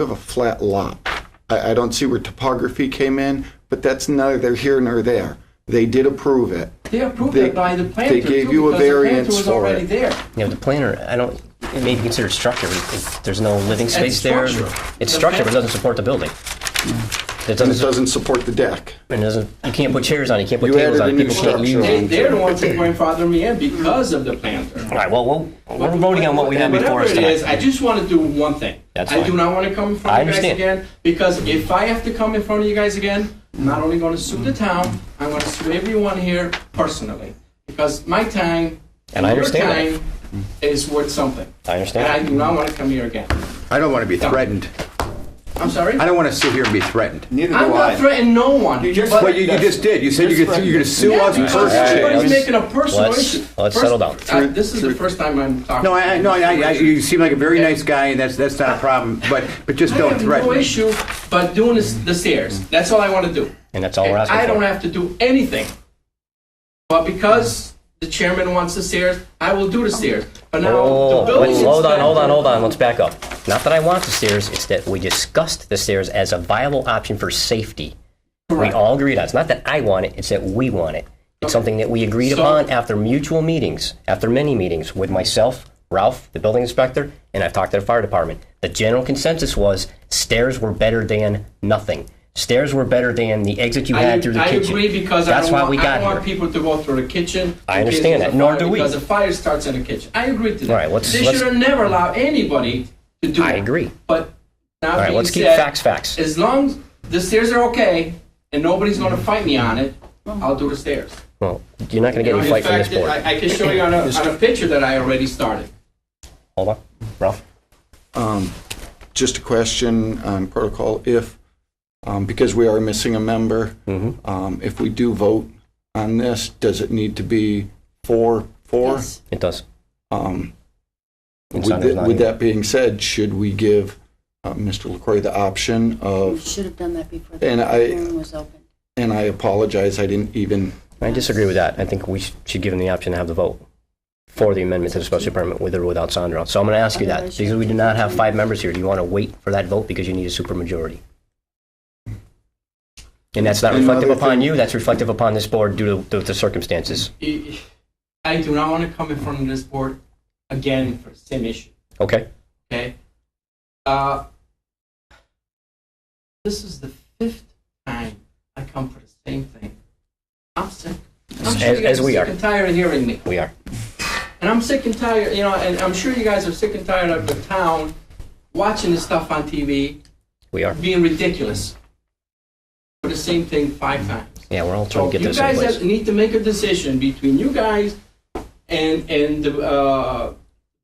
have a flat lot. I, I don't see where topography came in, but that's neither here nor there. They did approve it. They approved They- it by the they planter. gave too, you a because the planter variance was for already it. there. You know, the planner, I don't, it may be considered structure. but it- There's no living space there. structure. It's structure, but it doesn't support the building. Mm. It And it doesn't, doesn't support the deck. it doesn't, you can't put chairs on it, you can't put You tables added on a it. new People can't structure. use They, it. they're the ones who grandfather me in because of the planter. All right, well, we'll- we're voting on what we have before us Whatever it is, tonight. I just want to do one thing. That's I do fine. not want to come in I front of you guys understand. again, because if I have to come in front of you guys again, I'm not only going to sue the town, I'm going to sue everyone here personally, because my time And I understand your time is worth something. And I I understand. do not want to come here again. I don't want to be threatened. I'm sorry? I don't want to sit here and be threatened. Neither I'm do not I. threatening no one. You just- but- But you, you just did. You said you could, you're going to sue Yeah, us because personally. everybody's making a personal let's- issue. let's First- settle down. I- This is the first time I'm talking. No, I, I- no, I, I, you seem like a very nice guy, and that's that's not a problem. But but just I don't have threaten. no me. issue but doing this, the stairs. That's all I want to do. And that's all we're I asking don't for. have to do anything. But because the chairman wants the stairs, I will do the stairs. But now Oh, the building hold on, inspector- hold on, hold on, let's back up. Not that I want the stairs, it's that we discussed the stairs as a viable option for safety. We Correct. all agreed on. it. It's not that I want it, it's that we want it. It's something that we agreed So- upon after mutual meetings, after many meetings with myself, Ralph, the building inspector, and I've talked to the fire department. The general consensus was stairs were better than nothing. Stairs were better than the exit you I, had through the I kitchen. agree because That's I don't, why want, we I got don't want here. people to go through the kitchen. I in case understand there's that, a nor fire, do we. Because the fire starts in the kitchen. I agree to that. All right, let's- they let's- should have never allowed anybody to do I that. agree. But now All right, being let's keep said, facts facts. As long as the stairs are okay and nobody's going to fight me on it, I'll do the stairs. Well, you're not going to get any You know, in fight from this fact, board. I, I can show you on a, on a picture that I already started. Hold on, Ralph. Um, Just a question on protocol, if, um, because we are missing a member, um, if we do vote on this, does it need to be four, four? Yes. It does. Um, And With Saunders that not with here. that being said, should we give uh, Mr. LaCroix the option We of, should have done that before Oh. And the I- hearing was open. and I apologize, I didn't even, I disagree with that. I think we sh- should give them the option to have the vote for the amendment to the special permit with or without Sandra. So I'm going to ask you that, because we do not have five members here. Do you want to wait for that vote because you need a supermajority? And that's not And reflective another upon thing- you, that's reflective upon this board due to- to the circumstances. I I do not want to come in front of this board again for the same issue. Okay? Okay. Uh, this is the fifth time I come for the same thing. I'm sick. I'm sure As- you guys as we sick are. and tired of hearing me. We are. And I'm sick and tired, you know, and I'm sure you guys are sick and tired of the town watching this stuff on TV, We are. being ridiculous for the same thing five times. Yeah, we're all So trying to get this you in guys place. have- need to make a decision between you guys and and the uh,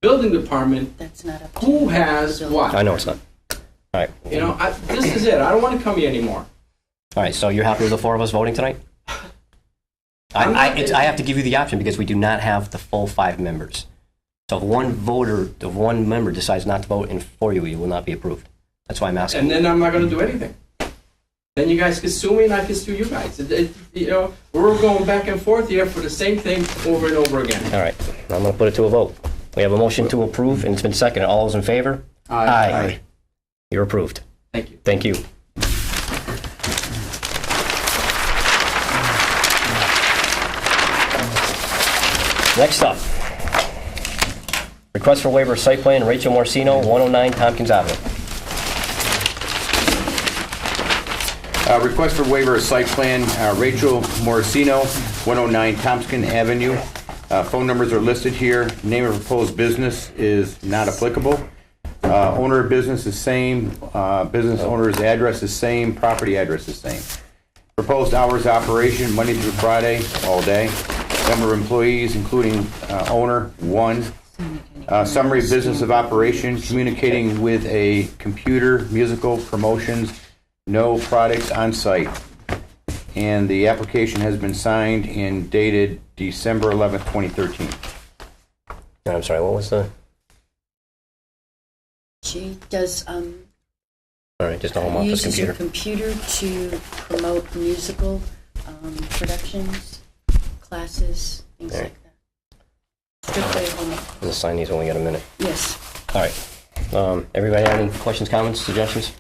building department. That's not up to Who has So- what? I know it's not. All right. You know, I, this is it. I don't want to come here anymore. All right, so you're happy with the four of us voting tonight? I, I'm I, not- it's, I have to give you the option because we do not have the full five members. So if one voter, if one member decides not to vote in for you, you will not be approved. That's why I'm And asking. then I'm not going to do anything. Then you guys can sue me, and I can sue you guys. It- it- you know, we're going back and forth here for the same thing over and over again. All right, I'm going to put it to a vote. We have a motion to approve, and it's been seconded. All those in favor? Aye. You're approved. Thank you. Thank you. Next up, request for waiver of site plan, Rachel Morcino, 109 Tompkins Avenue. Uh, Request for waiver of site plan, uh, Rachel Morosino, 109 Thompson Avenue. Uh, Phone numbers are listed here. Name of proposed business is not applicable. Uh, Owner of business is same, Uh, business owner's address is same, property address is same. Proposed hours of operation, Monday through Friday, all day. Number of employees, including uh, owner, one. Uh, Summary of business of operation, communicating with a computer, musical, promotions, no products on site. And the application has been signed and dated December 11th, 2013. No, I'm sorry, what was the, She does, um, all right, just the home office uses her computer. computer to promote musical um, productions, classes, things Right. like that. Strictly home, Let's sign these when we get a minute. yes. All right. Um, everybody have any questions, comments, suggestions?